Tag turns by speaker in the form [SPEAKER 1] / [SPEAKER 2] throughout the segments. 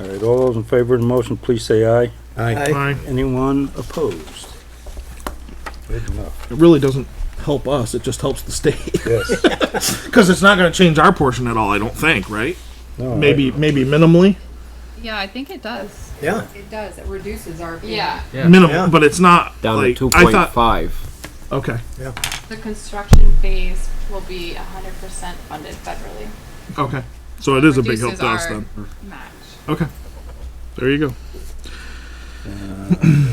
[SPEAKER 1] All right, all those in favor of the motion, please say aye.
[SPEAKER 2] Aye.
[SPEAKER 3] Aye.
[SPEAKER 1] Anyone opposed? Good enough.
[SPEAKER 3] It really doesn't help us, it just helps the state.
[SPEAKER 1] Yes.
[SPEAKER 3] Because it's not gonna change our portion at all, I don't think, right?
[SPEAKER 1] No, I-
[SPEAKER 3] Maybe, maybe minimally,
[SPEAKER 4] Yeah, I think it does.
[SPEAKER 2] Yeah.
[SPEAKER 4] It does. It reduces our. fee.
[SPEAKER 5] Yeah,
[SPEAKER 6] Yeah.
[SPEAKER 2] Yeah.
[SPEAKER 3] minimal, but it's not
[SPEAKER 6] down
[SPEAKER 3] like,
[SPEAKER 6] to
[SPEAKER 3] I thought,
[SPEAKER 6] 2.5.
[SPEAKER 3] okay,
[SPEAKER 5] the construction phase will be hundred percent funded federally.
[SPEAKER 3] okay. So it is a big help
[SPEAKER 5] Reduces
[SPEAKER 3] to us
[SPEAKER 5] our
[SPEAKER 3] then.
[SPEAKER 5] Match.
[SPEAKER 3] Okay. There you go.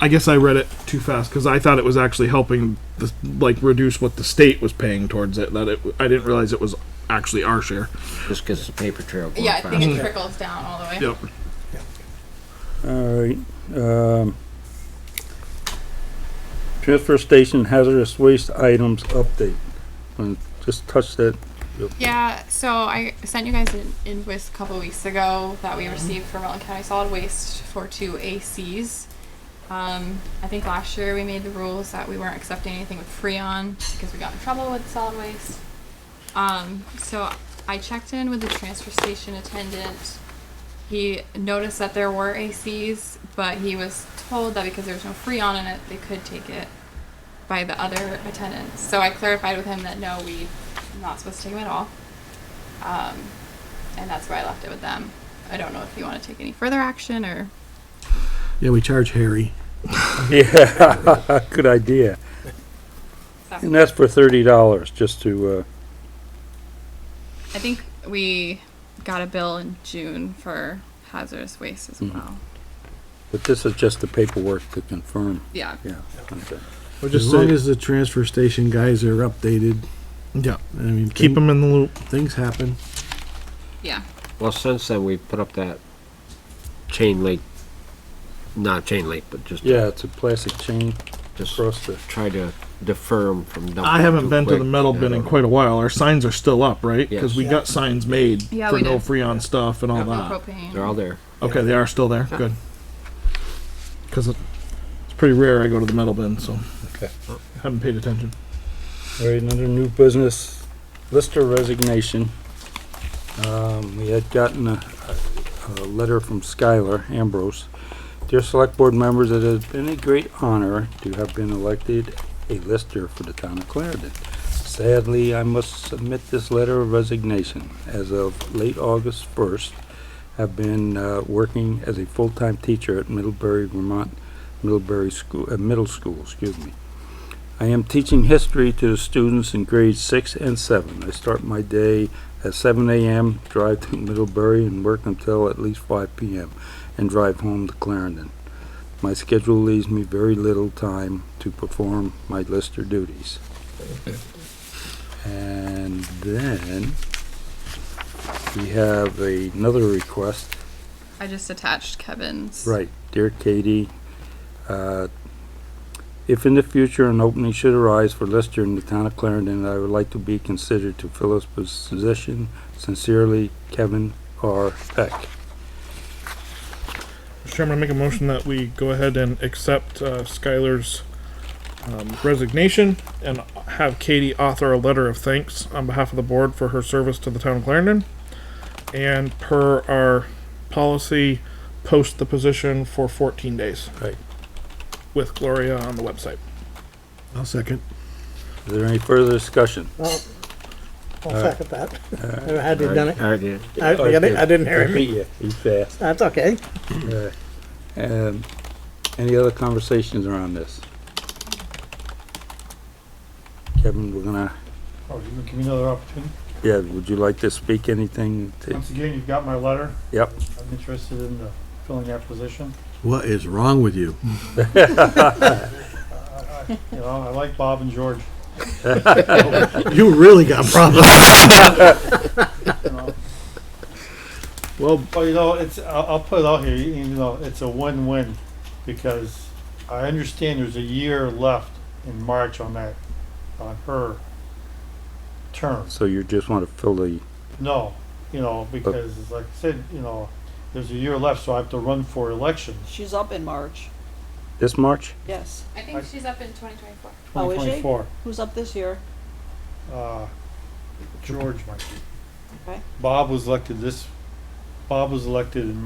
[SPEAKER 3] I guess I read it too fast because I thought it was actually helping, the, like, reduce what the state was paying towards it. That it, I didn't realize it was actually our share.
[SPEAKER 7] Just because the paper trail going
[SPEAKER 5] Yeah, I think
[SPEAKER 7] faster.
[SPEAKER 5] it trickles down all the way.
[SPEAKER 3] Yep.
[SPEAKER 1] All right, um. Transfer station hazardous waste items update. And just touch that.
[SPEAKER 5] Yeah, so I sent you guys an invoice a couple weeks ago that we received from Rutland County Solid Waste for two ACs. Um, I think last year we made the rules that we weren't accepting anything with Freon because we got in trouble with solid waste. Um, so I checked in with the transfer station attendant. He noticed that there were ACs, but he was told that because there was no Freon in it, they could take it by the other attendants. So I clarified with him that no, we not supposed to take them at all. Um, and that's where I left it with them. I don't know if you want to take any further action or.
[SPEAKER 3] Yeah, we charge Harry.
[SPEAKER 1] Yeah, good idea. And that's for thirty dollars, just to, uh,
[SPEAKER 5] I think we got a bill in June for hazardous waste as
[SPEAKER 7] Mm-hmm.
[SPEAKER 5] well.
[SPEAKER 1] but this is just the paperwork to confirm,
[SPEAKER 5] Yeah.
[SPEAKER 1] yeah. okay.
[SPEAKER 3] just
[SPEAKER 8] As long as the transfer station guys are updated,
[SPEAKER 3] Yeah.
[SPEAKER 8] I mean,
[SPEAKER 3] Keep them in the loop.
[SPEAKER 8] thi- Things happen.
[SPEAKER 5] Yeah.
[SPEAKER 7] Well, since then, we've put up that chain link, not chain link, but just,
[SPEAKER 1] Yeah, it's a plastic chain
[SPEAKER 7] just
[SPEAKER 1] across the,
[SPEAKER 7] try to defer them from dumping.
[SPEAKER 3] I haven't
[SPEAKER 7] too
[SPEAKER 3] been to
[SPEAKER 7] quick.
[SPEAKER 3] the metal
[SPEAKER 7] I
[SPEAKER 3] bin in
[SPEAKER 7] don't know.
[SPEAKER 3] quite a while. Our signs are still up, right? Because
[SPEAKER 7] Yes.
[SPEAKER 3] we got signs made
[SPEAKER 5] Yeah,
[SPEAKER 3] for
[SPEAKER 5] we
[SPEAKER 3] no
[SPEAKER 5] did.
[SPEAKER 3] Freon stuff and all
[SPEAKER 5] No
[SPEAKER 3] that.
[SPEAKER 5] propane.
[SPEAKER 7] They're all there.
[SPEAKER 3] Okay, they are still there. Good. Because it's pretty rare I go to the metal bin, so
[SPEAKER 1] Okay.
[SPEAKER 3] haven't paid attention.
[SPEAKER 1] all right, another new business, Lister resignation. Um, we had gotten a, a letter from Skylar Ambrose. Dear Select Board members, it has been a great honor to have been elected a Lister for the town of Clarendon. Sadly, I must submit this letter of resignation. As of late August first, have been, uh, working as a full-time teacher at Middlebury, Vermont, Middlebury School, uh, Middle School, excuse me. I am teaching history to the students in grades six and seven. I start my day at seven AM, drive to Middlebury and work until at least five PM, and drive home to Clarendon. My schedule leaves me very little time to perform my Lister duties. And then we have another request
[SPEAKER 5] I just attached Kevin's.
[SPEAKER 1] Right, dear Katie, uh, if in the future an opening should arise for Lister in the town of Clarendon, I would like to be considered to fill this position. Sincerely, Kevin R. Peck.
[SPEAKER 3] Mr. Chairman, I make a motion that we go ahead and accept uh, Skylar's um, resignation and have Katie author a letter of thanks on behalf of the board for her service to the town of Clarendon. And per our policy, post the position for 14 days.
[SPEAKER 1] Right.
[SPEAKER 3] With Gloria on the website.
[SPEAKER 8] I'll second.
[SPEAKER 1] Is there any further discussion?
[SPEAKER 2] Well, I'll second that. I hadn't done it.
[SPEAKER 7] I did.
[SPEAKER 2] I I didn't I didn't hear him.
[SPEAKER 1] Yeah, he's fast.
[SPEAKER 2] That's okay.
[SPEAKER 1] Uh, um, Any other conversations around this? Kevin, we're gonna,
[SPEAKER 9] Oh, you're gonna give me another opportunity?
[SPEAKER 1] yeah, would you like to speak anything? to-
[SPEAKER 9] Once again, you've got my letter.
[SPEAKER 1] Yep.
[SPEAKER 9] I'm interested in uh, filling that position.
[SPEAKER 8] What is wrong with you?
[SPEAKER 9] You know, I like Bob and George,
[SPEAKER 8] You really got problems.
[SPEAKER 9] you know.
[SPEAKER 3] Well,
[SPEAKER 9] But you know, it's, I'll, I'll put it out here, you you know, it's a win-win because I understand there's a year left in March on that, on her term.
[SPEAKER 1] So you just wanna fill the,
[SPEAKER 9] No, you know, because like I said, you know, there's a year left, so I have to run for election.
[SPEAKER 10] She's up in March,
[SPEAKER 1] this March?
[SPEAKER 10] yes.
[SPEAKER 5] I think she's up in 2024.
[SPEAKER 10] Oh, is she?
[SPEAKER 9] 2024.
[SPEAKER 10] Who's up this year?
[SPEAKER 9] Uh, George might be.
[SPEAKER 10] Okay.
[SPEAKER 9] Bob was elected this, Bob was elected in